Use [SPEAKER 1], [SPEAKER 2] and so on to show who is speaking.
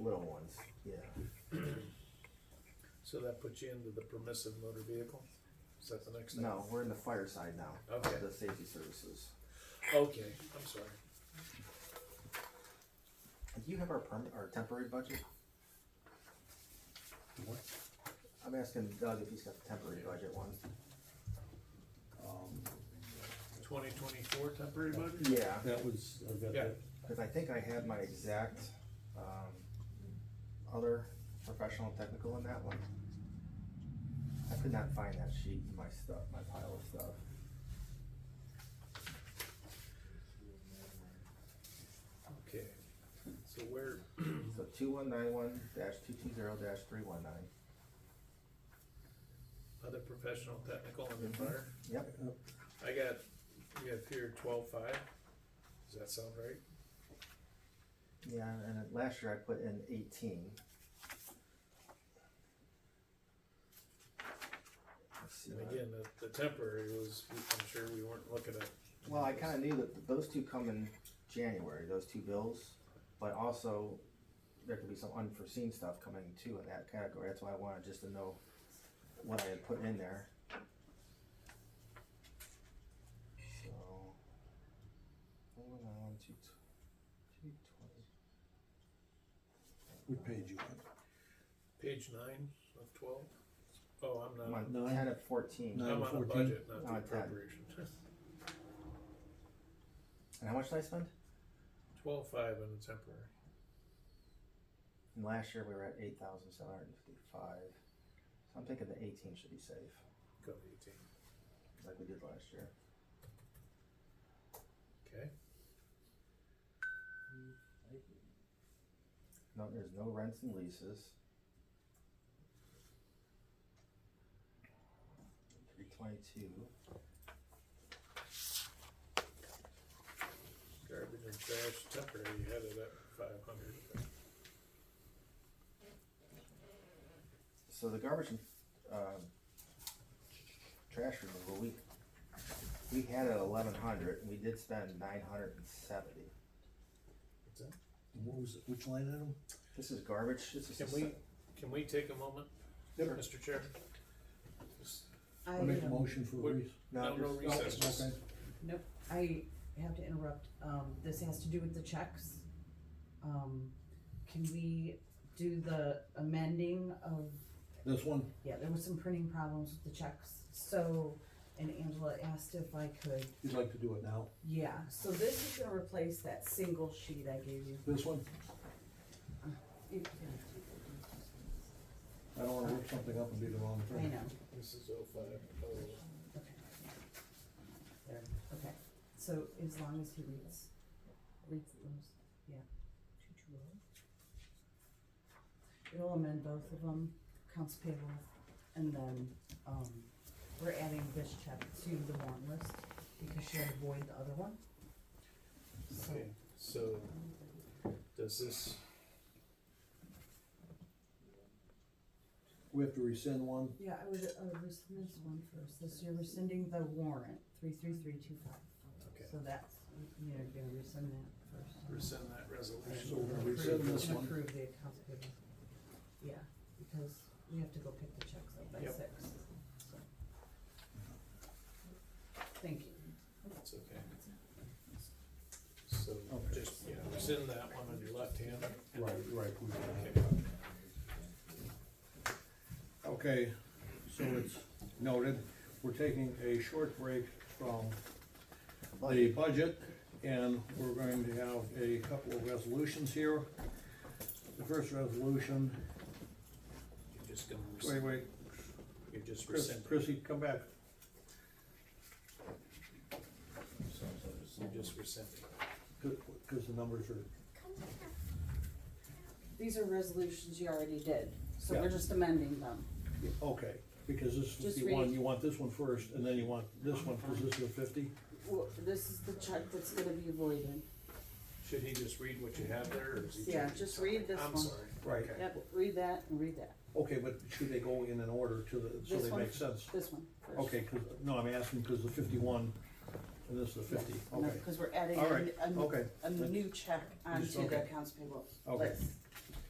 [SPEAKER 1] little ones, yeah.
[SPEAKER 2] So that puts you into the permissive motor vehicle? Is that the next thing?
[SPEAKER 1] No, we're in the fire side now. of
[SPEAKER 2] Okay.
[SPEAKER 1] The safety services.
[SPEAKER 2] Okay, I'm sorry.
[SPEAKER 1] Do you have our perm, our temporary budget?
[SPEAKER 3] What?
[SPEAKER 1] I'm asking Doug if he's got the temporary budget one.
[SPEAKER 3] Um,
[SPEAKER 2] Twenty twenty-four temporary budget?
[SPEAKER 1] Yeah,
[SPEAKER 3] that was, I've got
[SPEAKER 2] Yeah.
[SPEAKER 3] that,
[SPEAKER 1] cause I think I had my exact, um, other professional and technical in that one. I could not find that sheet in my stuff, my pile of stuff.
[SPEAKER 2] Okay, so where,
[SPEAKER 1] So two one nine one dash two two zero dash three one nine.
[SPEAKER 2] other professional, technical, and
[SPEAKER 1] Mm-hmm.
[SPEAKER 2] the fire?
[SPEAKER 1] Yep,
[SPEAKER 3] uh,
[SPEAKER 2] I got, you have here twelve-five? Does that sound right?
[SPEAKER 1] yeah, and then last year I put in eighteen. Let's see
[SPEAKER 2] And
[SPEAKER 1] what I-
[SPEAKER 2] again, the, the temporary was, I'm sure we weren't looking at.
[SPEAKER 1] Well, I kinda knew that those two come in January, those two bills, but also there could be some unforeseen stuff coming too in that category, that's why I wanted just to know what I had put in there. So. Hold on, two, tw- two twenty.
[SPEAKER 3] what page you on?
[SPEAKER 2] Page nine of twelve? Oh, I'm
[SPEAKER 1] I'm
[SPEAKER 2] not,
[SPEAKER 1] on
[SPEAKER 3] Uh, Nine.
[SPEAKER 1] ten of fourteen.
[SPEAKER 3] Nine.
[SPEAKER 2] I'm on the
[SPEAKER 3] 14.
[SPEAKER 2] budget, not the
[SPEAKER 1] Not that.
[SPEAKER 2] appropriation.
[SPEAKER 1] And how much did I spend?
[SPEAKER 2] Twelve-five and the temporary.
[SPEAKER 1] And last year we were at eight thousand seven hundred and fifty-five. So I'm thinking the eighteen should be safe,
[SPEAKER 2] Go to eighteen,
[SPEAKER 1] like we did last year.
[SPEAKER 2] okay?
[SPEAKER 1] No, there's no rents and leases. Three twenty-two,
[SPEAKER 2] Garbage and trash temporary, you had it at five hundred.
[SPEAKER 1] so the garbage and, um, trash removal, we, we had it eleven hundred, and we did spend nine hundred and seventy.
[SPEAKER 2] What's that?
[SPEAKER 3] And What was, it? which line item?
[SPEAKER 1] This is garbage, this is.
[SPEAKER 2] Can
[SPEAKER 1] a
[SPEAKER 2] we,
[SPEAKER 1] se-
[SPEAKER 2] can we take a moment, Mr. Chair? Just-
[SPEAKER 3] I make a
[SPEAKER 4] I,
[SPEAKER 3] motion for
[SPEAKER 2] What-
[SPEAKER 3] Reese.
[SPEAKER 2] No, no
[SPEAKER 1] there's-
[SPEAKER 2] recess, just-
[SPEAKER 3] Okay.
[SPEAKER 4] nope, I have to interrupt, um, this has to do with the checks. Um, can we do the amending of,
[SPEAKER 3] This one,
[SPEAKER 4] yeah, there was some printing problems with the checks, so, and Angela asked if I could,
[SPEAKER 3] you'd like to do it now?
[SPEAKER 4] yeah, so this is gonna replace that single sheet I gave you.
[SPEAKER 3] This one?
[SPEAKER 4] It-
[SPEAKER 3] I don't wanna rip something up and be the wrong
[SPEAKER 4] I
[SPEAKER 3] thing.
[SPEAKER 4] know,
[SPEAKER 2] This is oh five, oh.
[SPEAKER 4] okay. There, okay, so as long as he reads, reads those, yeah. It'll amend both of them, accounts payable, and then, um, we're adding this check to the warrant list because she'll void the other one. So,
[SPEAKER 2] Okay, so does this,
[SPEAKER 3] We have to rescind one,
[SPEAKER 4] yeah, I would, I would rescind this one first, this, you're rescinding the warrant, three, three, three, two, five.
[SPEAKER 2] Okay.
[SPEAKER 4] So that's, you're gonna rescind that first.
[SPEAKER 2] rescind that
[SPEAKER 3] so
[SPEAKER 2] resolution?
[SPEAKER 3] we're gonna rescind
[SPEAKER 4] Approve-
[SPEAKER 3] this one.
[SPEAKER 4] Approve the accounts payable. Yeah, because we have to go pick the checks up by
[SPEAKER 2] Yep.
[SPEAKER 4] six, so. Thank you.
[SPEAKER 2] It's okay. So just, yeah, rescind that one on your left hand.
[SPEAKER 3] Right, right. we-
[SPEAKER 2] Okay.
[SPEAKER 3] Okay, so it's noted, we're taking a short break from the budget, and we're going to have a couple of resolutions here. The first resolution,
[SPEAKER 2] You're just gonna,
[SPEAKER 3] wait,
[SPEAKER 2] rescind-
[SPEAKER 3] wait,
[SPEAKER 2] you're just
[SPEAKER 3] Chris,
[SPEAKER 2] rescinding.
[SPEAKER 3] Chrissy, come back.
[SPEAKER 2] You're just rescinding.
[SPEAKER 3] Because the numbers are,
[SPEAKER 4] These are resolutions you already did, so
[SPEAKER 3] Yeah.
[SPEAKER 4] we're just amending them.
[SPEAKER 3] okay, because this is
[SPEAKER 4] Just
[SPEAKER 3] the one,
[SPEAKER 4] read.
[SPEAKER 3] you want this one first, and then you want this one, because this is a fifty?
[SPEAKER 4] Well, this is the check that's gonna be voided.
[SPEAKER 2] Should he just read what you have there, or is he?
[SPEAKER 4] Yeah,
[SPEAKER 2] changing
[SPEAKER 4] just read
[SPEAKER 2] something?
[SPEAKER 4] this
[SPEAKER 2] I'm
[SPEAKER 4] one.
[SPEAKER 2] sorry.
[SPEAKER 3] Right.
[SPEAKER 2] Okay.
[SPEAKER 4] Yep, read that and read that,
[SPEAKER 3] Okay, but should they go in an order to the, so
[SPEAKER 4] This
[SPEAKER 3] they
[SPEAKER 4] one?
[SPEAKER 3] make sense?
[SPEAKER 4] this one first.
[SPEAKER 3] Okay, 'cause- no, I'm asking because the fifty-one, and this is the fifty,
[SPEAKER 4] No,
[SPEAKER 3] okay,
[SPEAKER 4] Cause we're adding
[SPEAKER 3] All right,
[SPEAKER 4] a, a-
[SPEAKER 3] okay.
[SPEAKER 4] a new check onto
[SPEAKER 3] okay.
[SPEAKER 4] the accounts payable
[SPEAKER 3] Okay.
[SPEAKER 4] list.